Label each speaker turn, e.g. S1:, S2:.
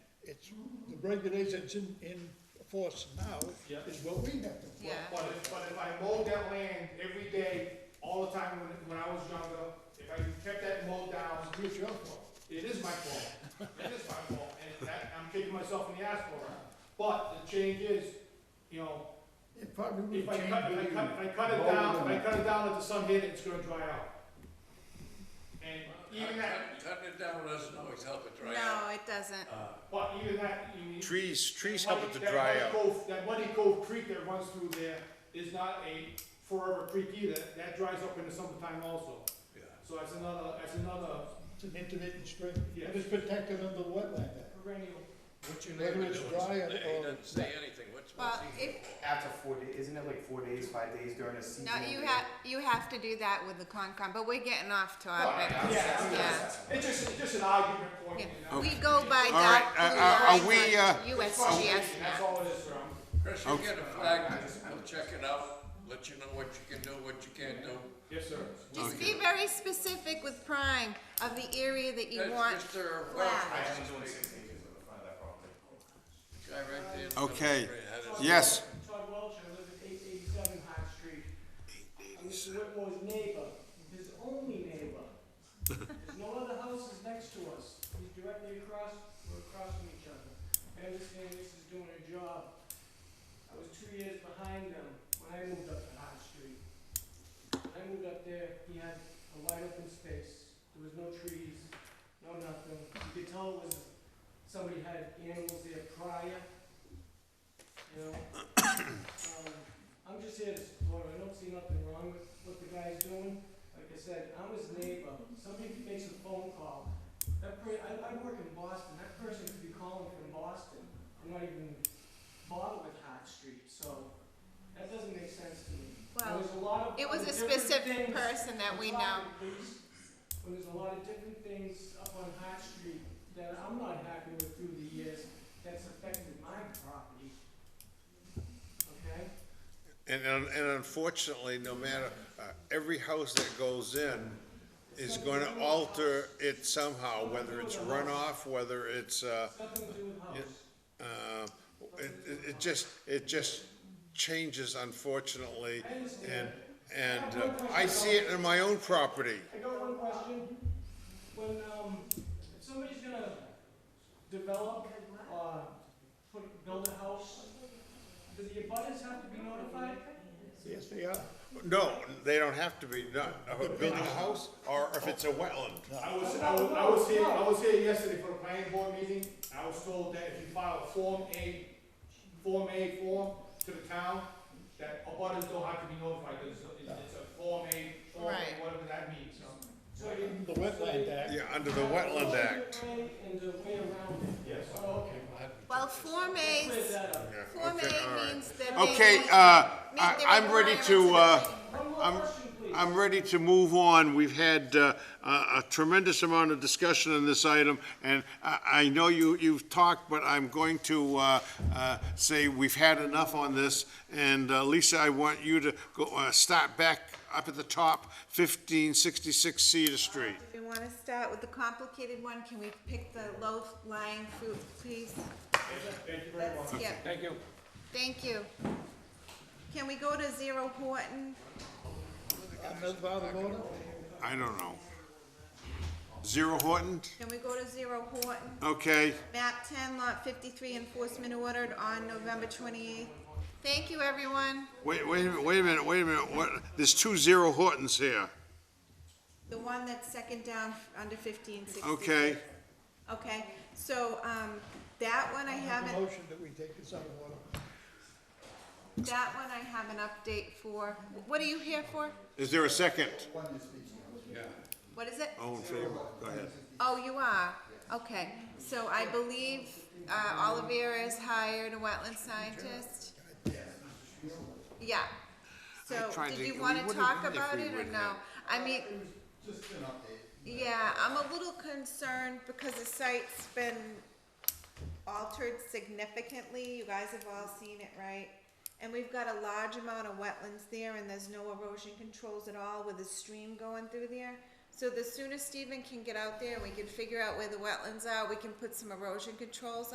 S1: regulations in, in force now
S2: Yeah.
S1: is what we have to follow.
S3: Yeah.
S2: But if, but if I mowed that land every day, all the time when, when I was younger, if I kept that mowed down,
S1: It's your fault.
S2: it is my fault. It is my fault, and that, I'm kicking myself in the ass for it. But the change is, you know,
S1: It probably
S2: if
S1: would
S2: I
S1: change.
S2: cut, if I cut, if I cut it
S4: Mow it
S2: down, if I
S4: down.
S2: cut it down, let the sun hit it, it's gonna dry out. And even that,
S5: Cutting it down doesn't always help it dry out.
S3: No, it doesn't.
S2: but even that, you need.
S6: Trees, trees
S2: That
S6: help it to
S2: muddy- that
S6: dry
S2: muddy
S6: out.
S2: cove- That muddy cove creek that runs through there is not a forever creek either, that dries up in the summertime also.
S5: Yeah.
S2: So that's another, that's another
S1: It's an intermittent stream,
S2: Yeah.
S1: and it's protected under wetland act.
S2: perennial.
S5: What's your
S1: Whether
S5: neighbor
S1: it's
S5: doing?
S1: dry or-
S5: He
S1: or
S5: doesn't say anything, what's, what's
S3: Well,
S5: he?
S3: if,
S4: After four days, isn't it like four days, five days during a season?
S3: no, you have, you have to do that with the Concom, but we're getting off topic.
S2: Yeah,
S3: Yeah.
S2: it's- it's just, it's just an argument point,
S3: Yeah.
S2: you know?
S3: We go by
S6: All right,
S3: that
S6: uh, uh,
S3: blue
S6: are we,
S3: line
S6: uh,
S3: on
S2: It's frustration,
S3: USGS
S2: That's
S3: map.
S2: all it is, Ram.
S5: Chris, you get a flag, we'll check it out, let you know what you can do, what you can't do.
S2: Yes, sir.
S3: Just be very specific with prime of the area that you
S5: That's
S3: want.
S5: Mr.
S3: flagged.
S4: I
S5: Welch,
S4: am doing six acres of the front of that property.
S5: guy right there.
S6: Okay.
S5: Had his-
S6: Yes,
S7: Todd Welch, I live at eight eighty-seven Hart Street. I'm Mr. Whitmore's neighbor, his only neighbor. There's no other houses next to us, he's directly across, we're across from each other. I understand this is doing a job. I was two years behind them when I moved up to Hart Street. When I moved up there, he had a wide open space, there was no trees, no nothing. You could tell it was, somebody had animals there prior, you know? Um, I'm just here to support, I don't see nothing wrong with what the guy's doing. Like I said, I'm his neighbor, somebody makes a phone call. That per, I, I work in Boston, that person could be calling from Boston. I'm not even bothered with Hot Street, so that doesn't make sense to me. There
S3: Well,
S7: was a lot of
S3: It was a
S7: other different
S3: specific
S7: things
S3: person that we know.
S7: when there's a lot of different things up on High Street that I'm not happy with through the years, that's affected my property. Okay?
S6: and, un- and unfortunately, no matter, uh, every house that goes in is gonna alter it somehow, whether it's runoff, whether it's, uh,
S7: Nothing to do with house.
S6: uh, it, it- it just, it just changes unfortunately. And, and uh, I see it in my own property.
S7: I got one question. When, um, if somebody's gonna develop, uh, put, build a house, do the abutters have to be notified?
S1: Yes, they are.
S6: No, they don't have to be, not, building a house, or if it's a wetland.
S2: I was, I was, I was here, I was here yesterday for the planning board meeting, and I was told that if you file a Form A, Form A form to the town, that abutters don't have to be notified, it's, it's it's a Form A, Form
S3: Right.
S2: A, whatever that means, so.
S7: So you-
S1: The wetland act,
S6: Yeah, under the Wetland Act.
S7: And the way around it.
S2: Yes.
S7: Oh, okay.
S3: Well, Form
S7: Clear
S3: A's,
S7: that up.
S6: Yeah,
S3: Form
S6: okay, all
S3: A
S6: right.
S3: means that they.
S6: Okay,
S3: meet
S6: uh,
S3: the
S6: I, I'm ready
S3: requirements of
S6: to,
S3: the
S6: uh,
S3: planning
S7: One more
S6: I'm-
S7: question, please.
S6: I'm ready to move on. We've had uh, a a tremendous amount of discussion on this item, and I I know you, you've talked, but I'm going to uh, uh, say we've had enough on this. And uh, Lisa, I want you to go, uh, start back up at the top, 1566 Cedar Street.
S3: We want to start with the complicated one. Can we pick the low lying fruit, please?
S2: Thank you very much.
S3: That's, yeah. Thank you. Thank you. Can we go to Zero Horton?
S1: I'm not bothered about it.
S6: I don't know. Zero Horton?
S3: Can we go to Zero Horton?
S6: Okay.
S3: Map ten, lot fifty-three, enforcement ordered on November twenty-eighth. Thank you, everyone.
S6: Wait, wait, a minute, wait a minute, wait a minute. What, there's two Zero Hortons here.
S3: The one that's second down under fifteen sixty.
S6: Okay.
S3: Okay, so, um, that one I
S1: The
S3: haven't,
S1: motion that we take is out of order.
S3: that one I have an update for. What are you here for?
S6: Is there a second?
S3: What is it?
S6: All in favor? Go ahead.
S3: Oh, you are? Okay, so I believe uh, Oliveira has hired a wetland scientist? Yeah. So,
S6: tried
S3: did
S6: to-
S3: you
S6: we
S3: wanna
S6: would've
S3: talk
S6: been if
S3: about
S6: we
S3: it or
S6: would've
S3: no?
S6: had-
S3: I mean. Yeah, I'm a little concerned because the site's been altered significantly, you guys have all seen it, right? And we've got a large amount of wetlands there and there's no erosion controls at all with a stream going through there. So the sooner Stephen can get out there and we can figure out where the wetlands are, we can put some erosion controls